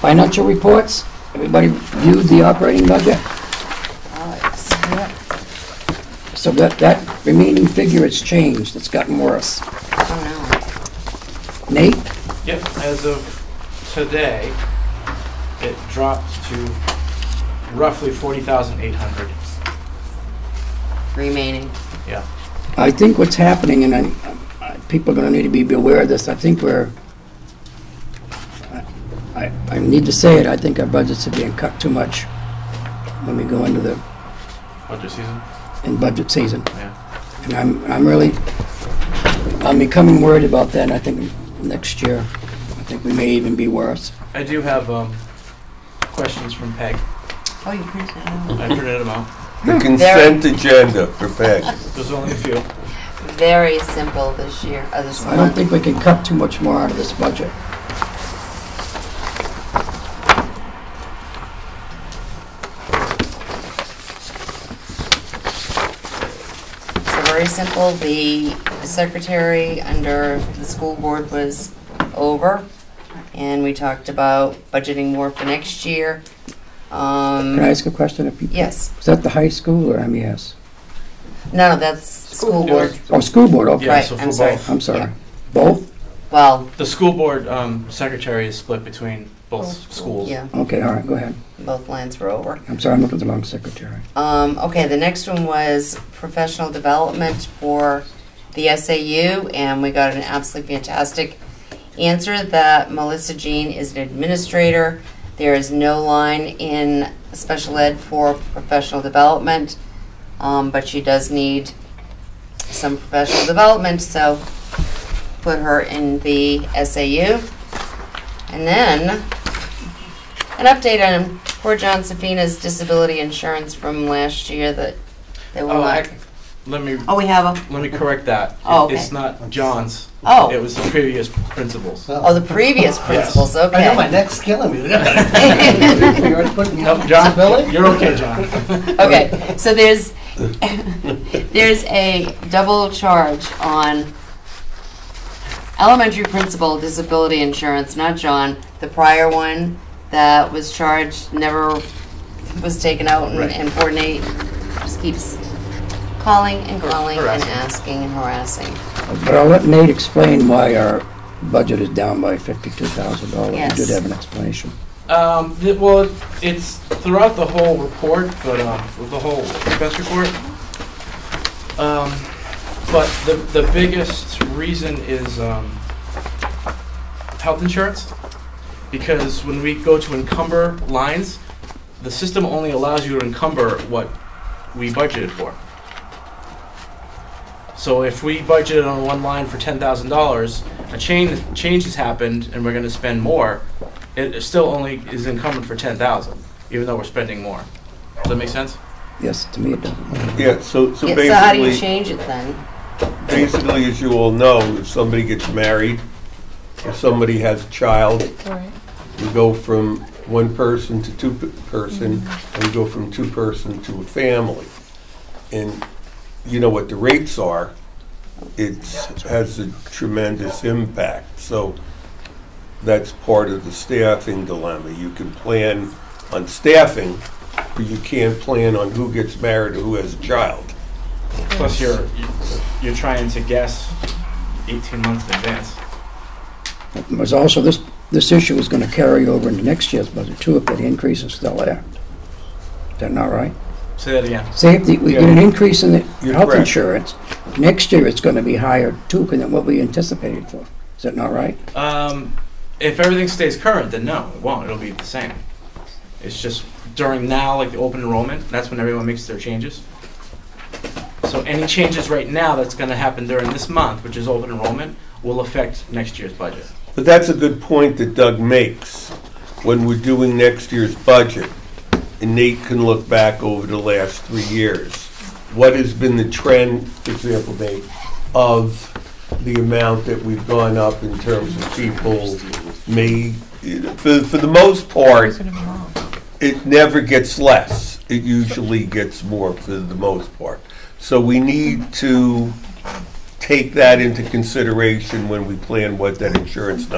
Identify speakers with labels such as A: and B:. A: Financial reports, everybody viewed the operating budget?
B: Yep.
A: So that, that remaining figure has changed, it's gotten worse.
B: Oh,
A: Nate,
C: Yep, as of today, it dropped to roughly forty thousand eight hundred.
B: no. Remaining.
C: Yeah.
A: I think what's happening, and I, I- people are gonna need to be aware of this, I think we're, I, I- I need to say it, I think our budgets are being cut too much when we go into the,
C: Budget season?
A: in budget season.
C: Yeah.
A: And I'm, I'm really, I'm becoming worried about that, and I think next year, I think we may even be worse.
C: I do have, um, questions from Peg.
B: Oh, you printed it out.
C: I printed them out.
D: The consent agenda for Peg.
C: There's only a few.
B: Very simple this year, uh, this
A: I don't
B: month.
A: think we can cut too much more out of this budget.
B: So very simple, the secretary under the school board was over, and we talked about budgeting more for next year.
A: Can I
B: Um,
A: ask a question of people?
B: yes,
A: Is that the high school or MES?
B: no, that's school board,
A: Oh, school board, okay.
C: Yeah, so
B: Right,
C: for
B: I'm sorry.
C: both.
A: I'm sorry.
B: Yeah.
A: Both?
B: well,
C: The school board, um, secretary is split between both schools.
B: yeah,
A: Okay, all right, go ahead.
B: both lines were over.
A: I'm sorry, I'm looking at the wrong secretary.
B: Um, okay, the next one was professional development for the SAU, and we got an absolutely fantastic answer that Melissa Jean is an administrator. There is no line in special ed for professional development, um, but she does need some professional development, so put her in the SAU. And then an update on poor John Safina's disability insurance from last year that they will
C: Oh, I,
B: not.
C: let me,
B: Oh, we have a,
C: let me correct that.
B: Oh, okay.
C: It's not John's.
B: Oh.
C: It was the previous principal's.
B: oh, the previous principals,
E: Uh, I know, my
B: okay.
E: neck's killing me. You already put me
C: Nope,
E: on
C: John,
E: disability?
C: you're okay, John.
B: Okay, so there's, there's a double charge on elementary principal disability insurance, not John. The prior one that was charged never was taken out and-
C: Right.
B: and coordinate, just keeps calling and calling and
C: Harassing.
B: asking and harassing.
A: But I'll let Nate explain why our budget is down by fifty-two thousand dollars. He
B: Yes.
A: did have an explanation.
C: Um, th- well, it's throughout the whole report, but, um, with the whole expense report. Um, but the, the biggest reason is, um, health insurance. Because when we go to encumber lines, the system only allows you to encumber what we budgeted for. So if we budgeted on one line for ten thousand dollars, a change, change has happened and we're gonna spend more, it still only is encumbered for ten thousand, even though we're spending more. Does that make sense?
A: Yes, to me it doesn't.
D: Yeah, so, so
B: Yeah, so how do you
D: basically,
B: change it then?
D: basically, as you all know, if somebody gets married, if somebody has a child, you go from one person to two p- person, and you go from two person to a family. And you know what the rates are, it has a tremendous impact. So that's part of the staffing dilemma. You can plan on staffing, but you can't plan on who gets married or who has a child.
C: Plus you're, you're trying to guess eighteen months in advance.
A: There's also, this, this issue is gonna carry over into next year's budget too, if that increase is still there. Is that not right?
C: Say that again.
A: Say if the- we get an increase in the
D: You're
A: health
D: correct.
A: insurance, next year it's gonna be higher too than what we anticipated for. Is that not right?
C: Um, if everything stays current, then no, it won't, it'll be the same. It's just during now, like the open enrollment, that's when everyone makes their changes. So any changes right now that's gonna happen during this month, which is open enrollment, will affect next year's budget.
D: But that's a good point that Doug makes when we're doing next year's budget. And Nate can look back over the last three years. What has been the trend, for example, Nate, of the amount that we've gone up in terms of people may, for, for the most part, it never gets less. It usually gets more for the most part. So we need to take that into consideration when we plan what that insurance number